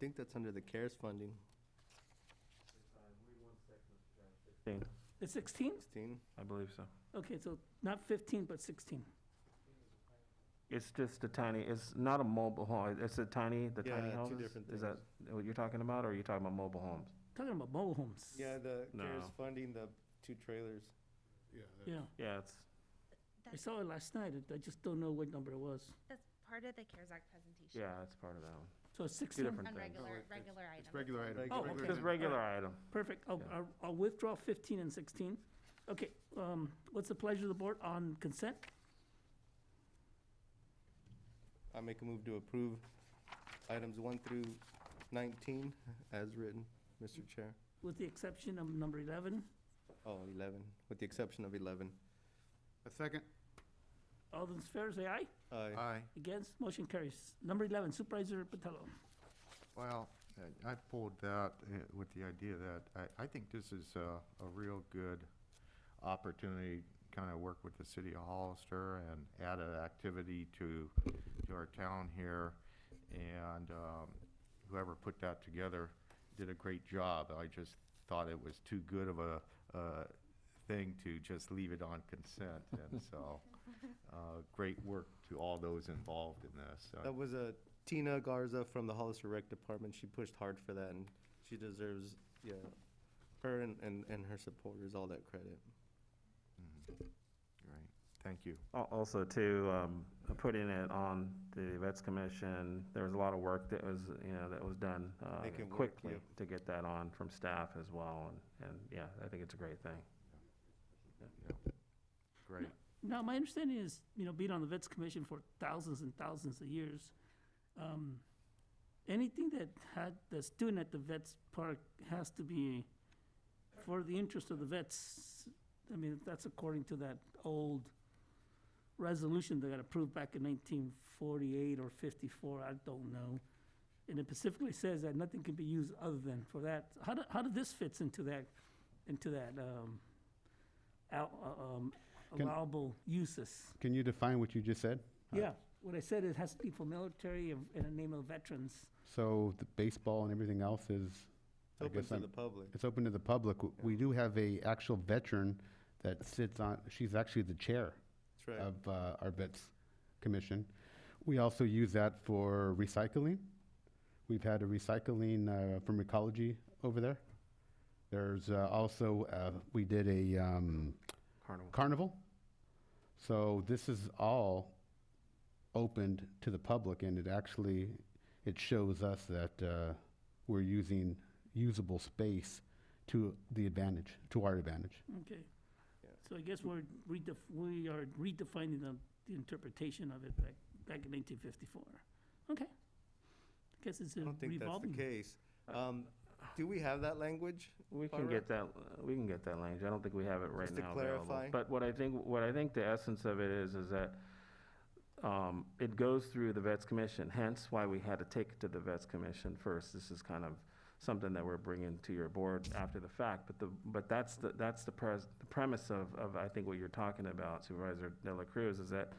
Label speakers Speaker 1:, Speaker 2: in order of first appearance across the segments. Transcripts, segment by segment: Speaker 1: think that's under the CARES funding,
Speaker 2: It's 16?
Speaker 1: sixteen.
Speaker 3: I believe so.
Speaker 2: Okay, so not 15, but 16.
Speaker 3: It's just a tiny, it's not a mobile home, it's a tiny, the tiny
Speaker 1: Yeah, two
Speaker 3: houses?
Speaker 1: different
Speaker 3: Is that what you're talking about, or are you talking about mobile homes?
Speaker 2: Talking about mobile homes.
Speaker 1: Yeah, the CARES
Speaker 3: No.
Speaker 1: funding, the two trailers.
Speaker 4: Yeah. that-
Speaker 2: Yeah,
Speaker 3: Yeah, it's,
Speaker 2: I saw it last night, I- I just don't know what number it was.
Speaker 5: That's part of the CARES Act presentation.
Speaker 3: yeah, it's part of that one.
Speaker 2: So it's
Speaker 3: Two
Speaker 2: 16?
Speaker 3: different
Speaker 5: On
Speaker 3: things.
Speaker 5: regular,
Speaker 4: it's-
Speaker 5: regular items.
Speaker 4: It's regular item.
Speaker 1: Oh,
Speaker 2: okay.
Speaker 3: Just regular item.
Speaker 2: Perfect, I'll,
Speaker 3: Yeah.
Speaker 2: I'll- I'll withdraw 15 and 16. Okay, um, what's the pleasure of the board on consent?
Speaker 1: I make a move to approve items one through nineteen as written, Mr. Chair.
Speaker 2: With the exception of number 11,
Speaker 1: Oh, eleven, with the exception of eleven.
Speaker 4: A second?
Speaker 2: all those in favor say aye.
Speaker 1: Aye.
Speaker 4: Aye.
Speaker 2: Against, motion carries. Number 11, Supervisor Patello.
Speaker 4: Well, I- I pulled that uh, with the idea that I, I think this is a, a real good opportunity, kind of work with the city of Hollister and add an activity to, to our town here. And um, whoever put that together did a great job. I just thought it was too good of a, uh, thing to just leave it on consent. And so, uh, great work to all those involved in this. Uh, So
Speaker 1: That was a Tina Garza from the Hollister Rec Department. She pushed hard for that and she deserves, yeah, her and, and, and her supporters all that credit.
Speaker 4: Great, thank you.
Speaker 3: Al- Also, too, um, putting it on the Vets Commission, there was a lot of work that was, you know, that was done uh,
Speaker 1: Make it work,
Speaker 3: quickly
Speaker 1: yeah.
Speaker 3: to get that on from staff as well, and, and, yeah, I think it's a great thing.
Speaker 4: Yeah. Great.
Speaker 2: Now, my understanding is, you know, being on the Vets Commission for thousands and thousands of years, um, anything that had, that's doing at the Vets Park has to be for the interest of the vets. I mean, that's according to that old resolution that got approved back in nineteen forty-eight or fifty-four, I don't know. And it specifically says that nothing can be used other than for that. How do, how do this fits into that, into that, um, out, uh, um,
Speaker 6: Can-
Speaker 2: allowable uses?
Speaker 6: Can you define what you just said?
Speaker 2: Yeah, what I said, it has to be for military and in the name of veterans.
Speaker 6: So the baseball and everything else is,
Speaker 1: It's
Speaker 6: I
Speaker 1: open
Speaker 6: guess
Speaker 1: to
Speaker 6: I'm-
Speaker 1: the public.
Speaker 6: it's open to the public. W- We do have a actual veteran that sits on, she's actually the chair
Speaker 1: That's right.
Speaker 6: of uh, our Vets Commission. We also use that for recycling. We've had a recycling uh, from Ecology over there. There's uh, also, uh, we did a um,
Speaker 3: Carnival.
Speaker 6: carnival. So this is all opened to the public, and it actually, it shows us that uh, we're using usable space to the advantage, to our advantage.
Speaker 2: Okay.
Speaker 1: Yeah.
Speaker 2: So I guess we're redef, we are redefining the, the interpretation of it back, back in nineteen fifty-four. Okay. I Guess it's
Speaker 1: I
Speaker 2: a
Speaker 1: don't think that's the
Speaker 2: revolving.
Speaker 1: case. Um, do we have that language?
Speaker 3: We can
Speaker 1: Barbara?
Speaker 3: get that, we can get that language. I don't think we have it right
Speaker 1: Just to
Speaker 3: now available.
Speaker 1: clarify.
Speaker 3: But what I think, what I think the essence of it is, is that um, it goes through the Vets Commission, hence why we had to take it to the Vets Commission first. This is kind of something that we're bringing to your board after the fact, but the, but that's the, that's the pres, the premise of, of, I think, what you're talking about Supervisor De La Cruz, is that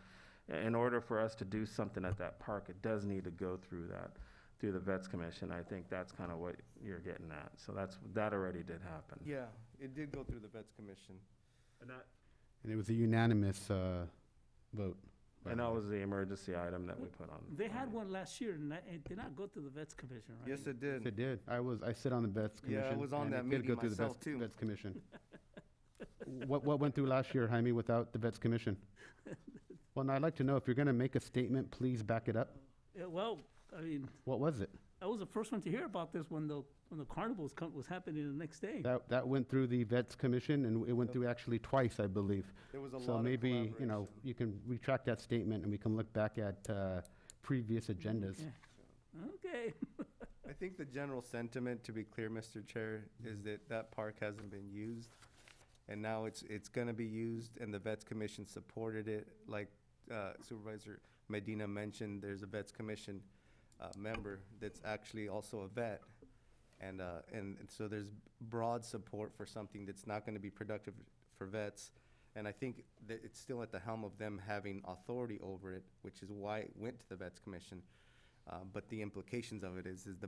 Speaker 3: in order for us to do something at that park, it does need to go through that, through the Vets Commission. I think that's kind of what you're getting at. So that's, that already did happen.
Speaker 1: Yeah, it did go through the Vets Commission.
Speaker 3: And that,
Speaker 6: And it was a unanimous uh, vote. by
Speaker 3: and
Speaker 6: the
Speaker 3: that
Speaker 6: way.
Speaker 3: was the emergency item that we put on.
Speaker 2: They had
Speaker 3: on.
Speaker 2: one last year and that, it did not go to the vets commission, right?
Speaker 1: Yes, it
Speaker 6: Yes, It
Speaker 1: did.
Speaker 6: did. I was, I sit on the Vets
Speaker 1: Yeah, I
Speaker 6: Commission.
Speaker 1: was on
Speaker 6: and it
Speaker 1: that
Speaker 6: did
Speaker 1: meeting
Speaker 6: go through the
Speaker 1: myself,
Speaker 6: Vets-
Speaker 1: too.
Speaker 6: Vets Commission. What, what went through last year, Jaime, without the Vets Commission? Well, now I'd like to know, if you're going to make a statement, please back it up.
Speaker 2: Yeah, well, I mean,
Speaker 6: What was it?
Speaker 2: I was the first one to hear about this when the, when the carnivals come, was happening the next day.
Speaker 6: That, that went through the Vets Commission, and it went through actually twice, I believe.
Speaker 1: There was a lot
Speaker 6: So
Speaker 1: of
Speaker 6: maybe, you know,
Speaker 1: collaboration.
Speaker 6: you can retract that statement, and we can look back at uh, previous agendas.
Speaker 2: Okay. Okay,
Speaker 1: I think the general sentiment, to be clear, Mr. Chair, is that that park hasn't been used. And now it's, it's gonna be used and the Vets Commission supported it. Like uh, Supervisor Medina mentioned, there's a Vets Commission uh, member that's actually also a vet. And, uh, and and so there's broad support for something that's not gonna be productive for vets. And I think that it's still at the helm of them having authority over it, which is why it went to the Vets Commission. Uh, But the implications of it is, is the